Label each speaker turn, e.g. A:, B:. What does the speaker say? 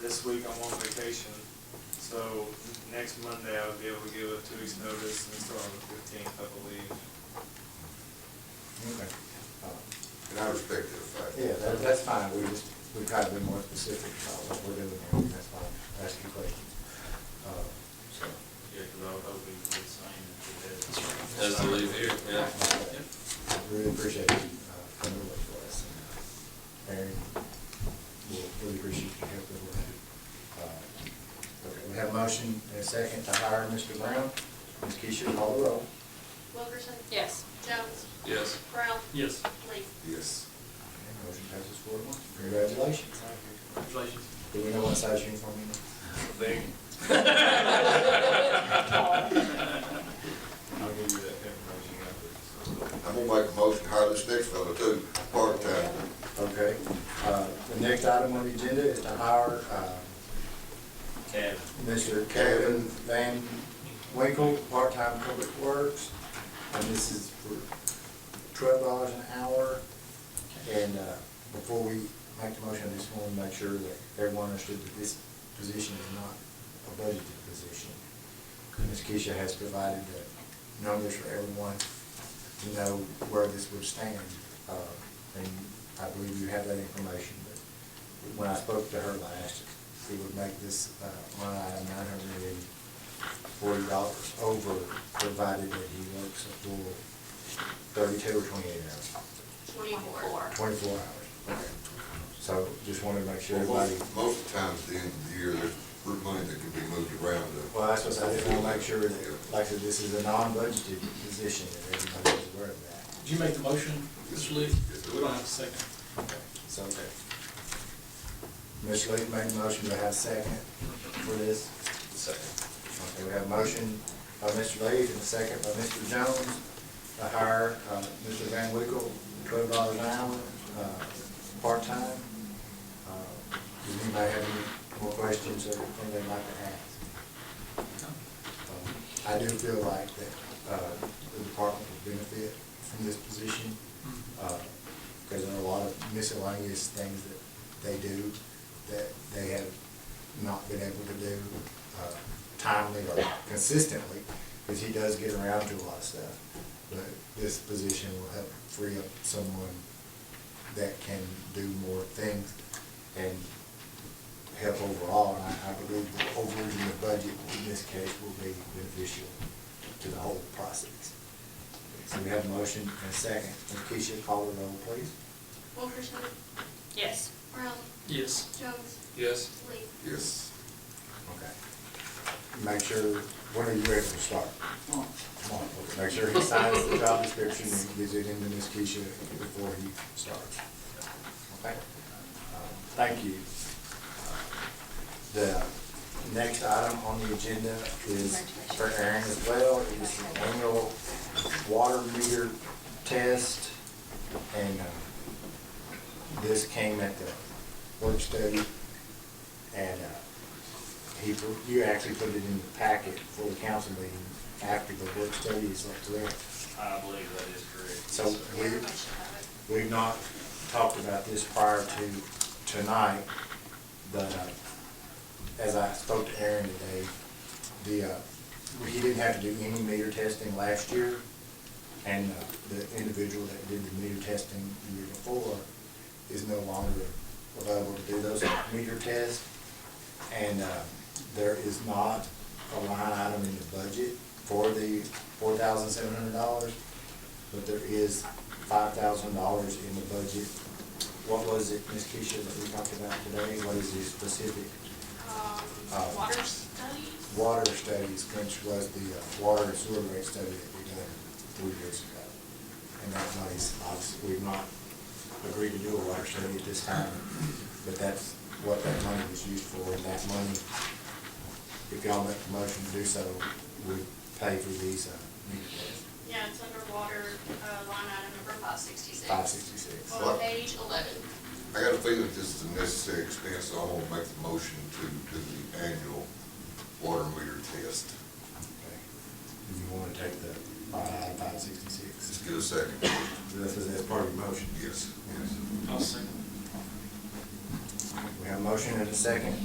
A: this week I'm on vacation, so next Monday I'll be able to give a two weeks notice and start on the fifteenth, I believe.
B: Okay. Uh,
C: And I respect that fact.
B: Yeah, that, that's fine, we just, we tried to be more specific about what we're doing, and that's why I'm asking questions. Uh, So,
D: Yeah, because I was hoping for the same if it
E: As to leave here, yeah.
B: I really appreciate you uh, coming over for us, and uh, Aaron, we'll really appreciate your help with that. Uh, Okay, we have a motion and a second to hire Mr. Brown. Ms. Keisha, call the roll.
F: Wilkerson? Yes. Jones?
E: Yes.
F: Brown?
D: Yes,
F: Lee?
C: Yes.
B: Okay, Motion passes four to one. Congratulations.
D: congratulations.
B: Do we know what size uniform you need?
D: Big.
A: I'll give you that information after.
C: I'm gonna make a motion to hire this next fellow too, part-time.
B: Okay, uh, the next item on the agenda is to hire, uh,
D: Tab.
B: Mr. Kevin Van Winkle, part-time public works. And this is for twelve dollars an hour. And, uh, before we make the motion, I just want to make sure that everyone understood that this position is not a budgeted position. Ms. Keisha has provided the numbers for everyone to know where this would stand. Uh, and I believe you have that information, but when I spoke to her last, it would make this uh, line item nine hundred and forty dollars over, provided that he works a full thirty-two or twenty-eight hours,
F: Twenty-four.
B: twenty-four hours. Okay. So just wanted to make sure everybody,
C: Most most of the times, at the end of the year, there's money that can be moved around. to-
B: well, that's what I just want to make sure that, like I said, this is a non-budgeted position, that everybody is aware of that.
D: Did you make the motion, Mr. Lee?
C: Yes, sir.
D: We don't have a second.
B: So, Ms. Lee made a motion, to have a second for this? Second. Okay, we have a motion by Mr. Lee and a second by Mr. Jones to hire uh, Mr. Van Winkle, twelve dollars an hour, uh, part-time. Uh, Does anybody have any more questions or anything they'd like to ask? Um, I do feel like that uh, the department would benefit from this position uh, because there are a lot of miscellaneous things that they do that they have not been able to do uh, timely or consistently, because he does get around to a lot of stuff. But this position will help free up someone that can do more things and help overall. And I- I believe the overreading the budget in this case will be beneficial to the whole process. So we have a motion and a second. Ms. Keisha, call the roll, please.
F: Wilkerson?
G: Yes.
F: Brown?
D: Yes.
F: Jones?
E: Yes.
F: Lee?
C: Yes.
B: Okay. Make sure, when are you ready to start? Tomorrow. Okay. Make sure he signs the job description and gives it into Ms. Keisha before he starts. Okay? Um, Thank you. The next item on the agenda is for Aaron as well. It is the annual water meter test. And uh, this came at the work study. And uh, he, put- you actually put it in the packet for the council meeting after the work study is up to it.
D: I believe that is correct.
B: So
D: Yes, sir.
B: we,
F: Everybody should have it.
B: we've not talked about this prior to tonight, but uh, as I spoke to Aaron today, the, uh, he didn't have to do any meter testing last year, and uh, the individual that did the meter testing the year before is no longer available to do those meter tests. And uh, there is not a line item in the budget for the four thousand seven hundred dollars, but there is five thousand dollars in the budget. What was it, Ms. Keisha, that we talked about today? What is the specific Uh,
F: Um, water studies?
B: water studies, which was the uh, water and sewer rate study that we done three years ago? And that money's, obviously, we've not agreed to do a water study at this time, but that's what that money was used for, and that money, if y'all make the motion to do so, would pay for these, uh, meter tests,
F: Yeah, it's underwater, uh, line item number five sixty-six.
B: five sixty-six.
F: On page eleven.
C: I got a feeling this is a necessary expense, so I'm gonna make the motion to, to the annual water meter test.
B: Okay. Do you want to take the line five sixty-six?
C: Just get a second.
B: This is as part of your motion.
C: Yes, yes.
D: I'll second.
B: We have a motion and a second.